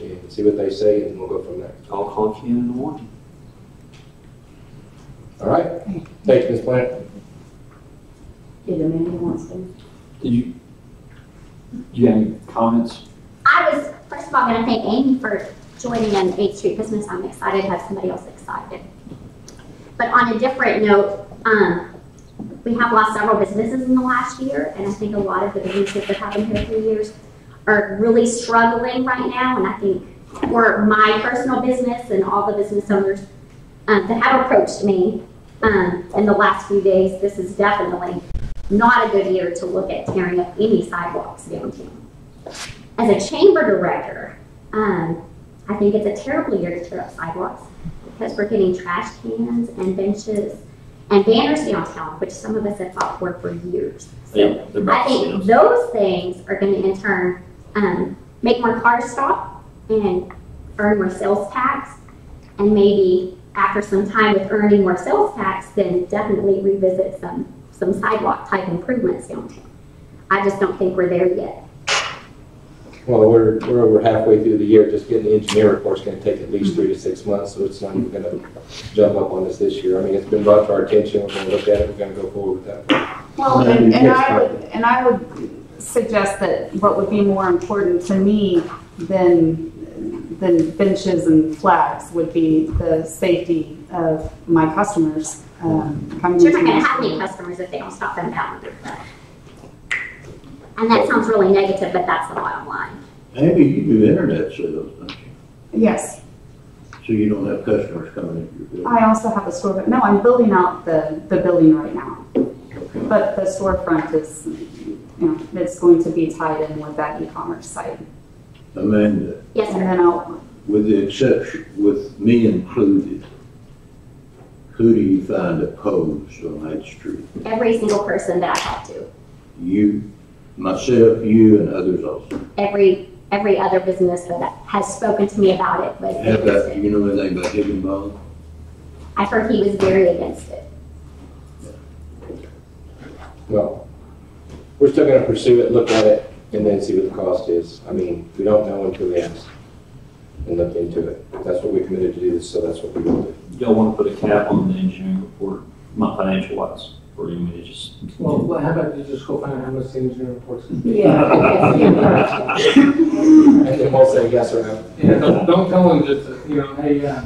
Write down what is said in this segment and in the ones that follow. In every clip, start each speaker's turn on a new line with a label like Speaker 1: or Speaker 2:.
Speaker 1: and see what they say, and we'll go from there.
Speaker 2: I'll call you in the morning.
Speaker 1: All right? Thank you, Ms. Plant.
Speaker 3: Did Amanda wants to?
Speaker 2: Did you, you have any comments?
Speaker 4: I was, first of all, going to thank Amy for joining an Eighth Street Business. I'm excited to have somebody else excited. But on a different note, um, we have lost several businesses in the last year, and I think a lot of the businesses that have been here for years are really struggling right now, and I think for my personal business and all the business owners um, that have approached me um, in the last few days, this is definitely not a good year to look at tearing up any sidewalks downtown as a chamber director, um, I think it's a terrible year to tear up sidewalks because we're getting trash cans and benches and banners downtown, which some of us have fought for for years. So I think those things are going to in turn um, make more cars stop and earn more sales tax. And maybe after some time with earning more sales tax, then definitely revisit some, some sidewalk type improvements downtown. I just don't think we're there yet.
Speaker 1: Well, we're, we're over halfway through the year, just getting the engineer report's gonna take at least three to six months, so it's not even gonna jump up on us this year. I mean, it's been brought to our attention, we're gonna look at it, we're gonna go forward with that.
Speaker 5: Well,
Speaker 6: Maybe
Speaker 5: and, and
Speaker 6: next
Speaker 5: I
Speaker 6: time.
Speaker 5: would, and I would suggest that what would be more important to me than, than benches and flags would be the safety of my customers, um, coming
Speaker 4: You're
Speaker 5: into my
Speaker 4: not gonna have any
Speaker 5: store.
Speaker 4: customers if they don't stop and down. And that sounds really negative, but that's the bottom line.
Speaker 6: Maybe you do internet sales, don't you?
Speaker 5: Yes,
Speaker 6: So you don't have customers coming into your building.
Speaker 5: I also have a store, but no, I'm building out the, the building right now.
Speaker 6: Okay.
Speaker 5: But the storefront is, you know, it's going to be tied in with that e-commerce site.
Speaker 6: Amanda,
Speaker 4: Yes,
Speaker 5: And
Speaker 4: sir.
Speaker 5: then I'll,
Speaker 6: with the exception, with me included, who do you find opposed on Eighth Street?
Speaker 4: Every single person that I talk to,
Speaker 6: You, myself, you, and others also.
Speaker 4: every, every other business that has spoken to me about it was
Speaker 6: How
Speaker 4: against
Speaker 6: about,
Speaker 4: it.
Speaker 6: you know anything about Higginbotham?
Speaker 4: I've heard he was very against it.
Speaker 1: Well, we're still gonna pursue it, look at it, and then see what the cost is. I mean, we don't know until we ask and look into it. That's what we committed to do, so that's what we will do.
Speaker 2: Y'all want to put a cap on the engineering report, my financial wise, or you may just.
Speaker 7: Well, well, how about you just go find out how much the engineer reports?
Speaker 3: Yeah.
Speaker 1: And then we'll say yes or no.
Speaker 7: Yeah, don't, don't tell them just, you know, hey, uh,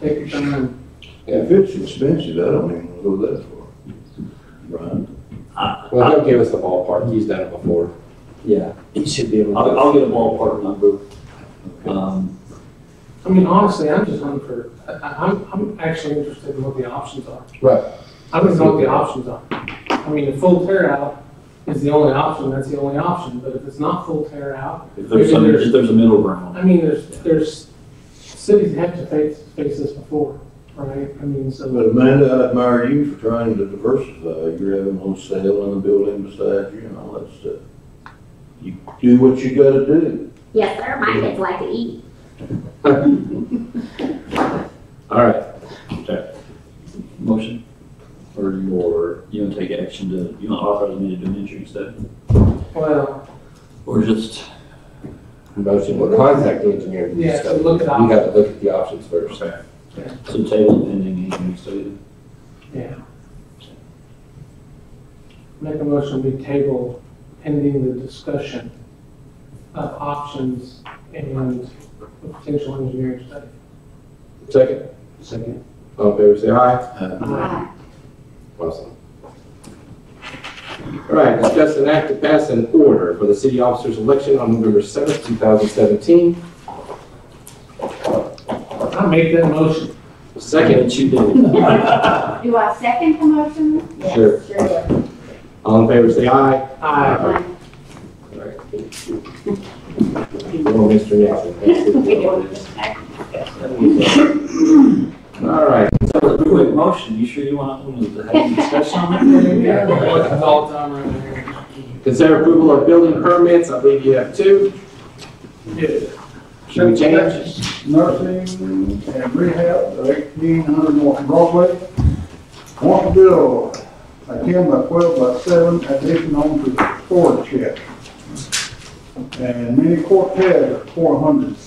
Speaker 7: take your time.
Speaker 6: If it's expensive, I don't even go that far. Right?
Speaker 1: Well, he'll give us the ballpark, he's done it before.
Speaker 2: Yeah,
Speaker 1: He should be able
Speaker 2: I'll, I'll get a ballpark number. Um,
Speaker 7: I mean, honestly, I'm just looking for, I, I- I'm, I'm actually interested in what the options are.
Speaker 1: Right.
Speaker 7: I don't know what the options are. I mean, a full tear out is the only option, that's the only option, but if it's not full tear out,
Speaker 2: if there's some, if there's a middle ground.
Speaker 7: I mean, there's, there's, cities have to face, face this before, right? I mean, so,
Speaker 6: But Amanda, I admire you for trying to diversify. You're having on sale in the building beside you and all that stuff. You do what you gotta do.
Speaker 4: Yes, sir, my kids like to eat.
Speaker 2: All right. Okay. Motion? Or you, or you want to take action to, you want to authorize me to do an engineering study?
Speaker 7: well,
Speaker 2: Or just
Speaker 1: Motion, we'll contact the engineer. to
Speaker 7: Yeah,
Speaker 1: discuss it.
Speaker 7: look at the
Speaker 1: You gotta look at the options first.
Speaker 2: Okay.
Speaker 7: Yeah.
Speaker 2: So table pending engineering study.
Speaker 7: yeah. Make a motion to table pending the discussion of options and the potential engineering study.
Speaker 1: Second? Second. All in favor, say aye.
Speaker 8: Uh,
Speaker 1: Awesome. All right, discuss an act to pass an order for the city officers election on November seventh, two thousand seventeen.
Speaker 7: I make that motion.
Speaker 1: Second,
Speaker 2: That you
Speaker 5: uh,
Speaker 2: did.
Speaker 3: Do I second the motion? Yes,
Speaker 1: Sure.
Speaker 3: Sure.
Speaker 1: all in favor, say aye.
Speaker 7: Aye.
Speaker 1: All right. Well, Mr. Nixon, that's it. All right,
Speaker 2: That was a quick motion. You sure you want, want to have a discussion on that?
Speaker 7: Yeah, motion's all the time around here.
Speaker 1: consider approval of building permits, I believe you have two. Should we change?
Speaker 8: Nursing and Rehab at eighteen hundred North Broadway. Want to build a ten by twelve by seven addition onto storage shed. And mini quartet at four hundred.